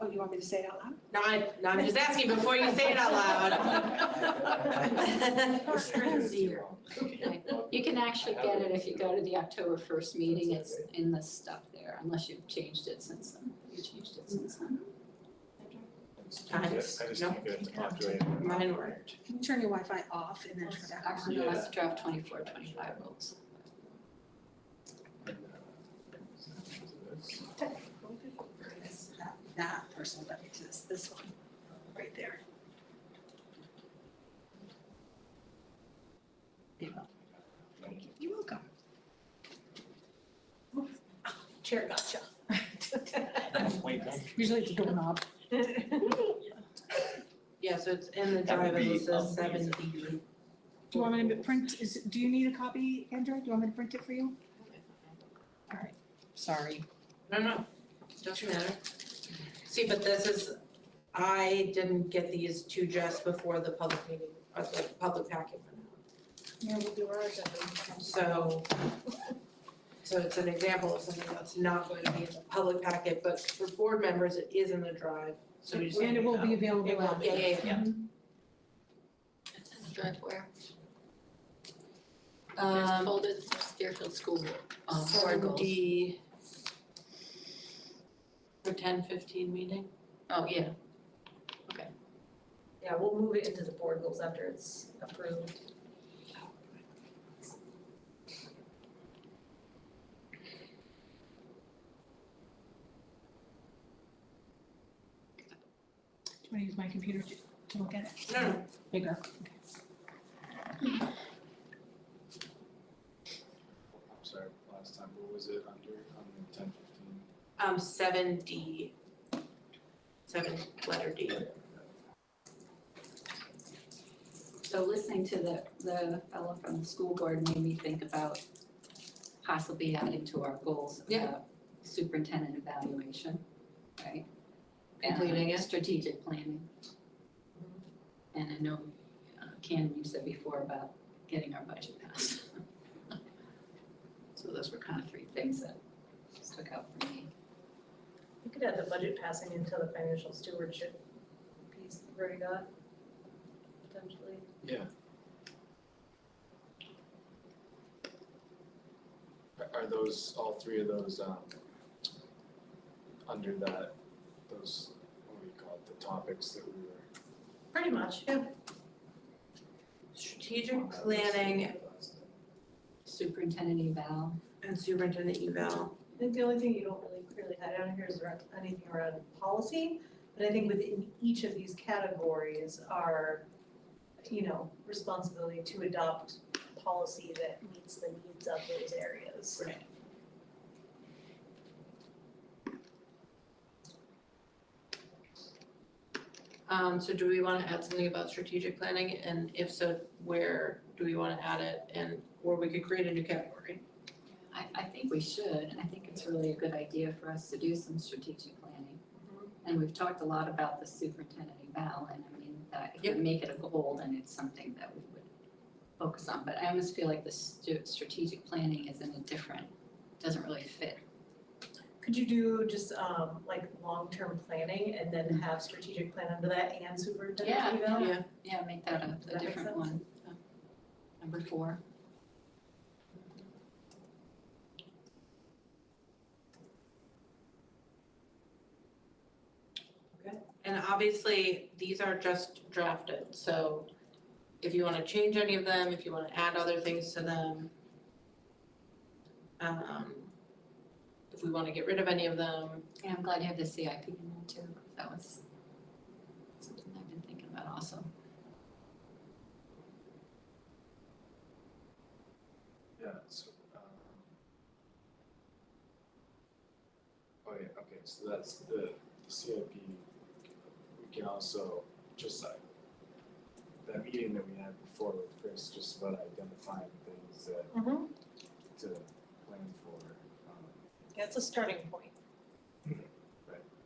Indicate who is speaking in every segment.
Speaker 1: Oh, you want me to say it out loud?
Speaker 2: No, I, no, I'm just asking before you say it out loud. Zero.
Speaker 3: You can actually get it if you go to the October first meeting, it's in the stuff there, unless you've changed it since then, you changed it since then.
Speaker 2: Times,
Speaker 4: I just
Speaker 2: no,
Speaker 4: can't get it to populate.
Speaker 2: mine worked.
Speaker 1: Can you turn your Wi-Fi off and then turn it back on?
Speaker 3: Actually, no, it's draft 24, 25 rules.
Speaker 1: It's That, that person that exists, this one, right there. There you go. You're welcome.
Speaker 2: Chair gotcha.
Speaker 1: Usually it's a doorknob.
Speaker 2: Yeah, so it's in the
Speaker 4: That would
Speaker 2: drive, it
Speaker 4: be
Speaker 2: says seven
Speaker 4: amazing.
Speaker 2: DB.
Speaker 1: Do you want me to print, is, do you need a copy, Andrew? Do you want me to print it for you? All right, sorry.
Speaker 2: No, no, doesn't matter. See, but this is, I didn't get these two just before the public meeting, uh, the public packet went out.
Speaker 1: Yeah, we'll do ours.
Speaker 2: So, so it's an example of something that's not going to be in the public packet, but for board members, it is in the drive, so we just.
Speaker 1: And it will be available.
Speaker 2: It will, yeah, yeah, yeah.
Speaker 3: It's in the draft where? There's folded Deerfield School Board, um, board
Speaker 2: Seven
Speaker 3: goals.
Speaker 2: D. For ten fifteen meeting?
Speaker 3: Oh, yeah,
Speaker 5: Yeah, we'll move it into the board goals after it's approved.
Speaker 1: Do you want to use my computer to, to look at it?
Speaker 2: No, no,
Speaker 1: Bigger.
Speaker 4: I'm sorry, last time, what was it under, on the ten fifteen?
Speaker 2: um, seven D. Seven, letter D.
Speaker 3: so listening to the, the fellow from the school board made me think about possibly adding to our goals
Speaker 2: Yeah.
Speaker 3: about superintendent evaluation, right? And
Speaker 2: Completing it.
Speaker 3: Strategic planning. And I know, uh, Ken, you said before about getting our budget passed. So those were kind of three things that stuck out for me.
Speaker 5: You could add the budget passing into the financial stewardship piece we've already got, potentially.
Speaker 4: Are, are those, all three of those, um, under that, those, what do you call it, the topics that we were.
Speaker 5: Pretty much.
Speaker 2: Strategic planning
Speaker 3: Superintendent eval,
Speaker 2: and superintendent eval.
Speaker 5: I think the only thing you don't really clearly have down here is around, anything around policy, but I think within each of these categories are, you know, responsibility to adopt policy that meets the needs of those areas.
Speaker 2: Right. Um, so do we wanna add something about strategic planning, and if so, where do we wanna add it, and, or we could create a new category?
Speaker 3: I, I think we should, and I think it's really a good idea for us to do some strategic planning. And we've talked a lot about the superintendent eval, and I mean, that if
Speaker 2: Yep.
Speaker 3: we make it a goal, then it's something that we would focus on, but I almost feel like the stu- strategic planning is in a different, doesn't really fit.
Speaker 5: Could you do just um like long-term planning and then have strategic plan under that and superintendent eval?
Speaker 2: Yeah,
Speaker 3: Yeah, make that a,
Speaker 5: Does
Speaker 3: a
Speaker 5: that make
Speaker 3: different
Speaker 5: sense?
Speaker 3: one. so. Number four.
Speaker 2: and obviously, these are just drafted, so if you wanna change any of them, if you wanna add other things to them. Um, if we wanna get rid of any of them,
Speaker 3: And I'm glad you have the CIP in there too, 'cause that was something I've been thinking about also.
Speaker 4: Yeah, so, um. Oh yeah, okay, so that's the CIP, we can also, just like, that meeting that we had before with Chris, just about identifying things that
Speaker 5: Mhm.
Speaker 4: to plan for, um,
Speaker 5: That's a starting point.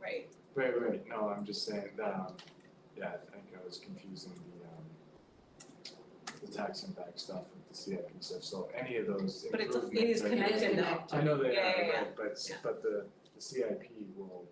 Speaker 4: Right.
Speaker 5: Right.
Speaker 4: Right, right, no, I'm just saying that, um, yeah, I think I was confusing the, um, the tax impact stuff with the CIP stuff, so any of those
Speaker 5: But it's-
Speaker 4: improvements.
Speaker 5: it is
Speaker 4: are-
Speaker 5: connected
Speaker 3: Connected.
Speaker 5: now.
Speaker 4: I know they
Speaker 5: Yeah,
Speaker 4: are,
Speaker 5: yeah, yeah.
Speaker 4: right, but, s- but the, the CIP will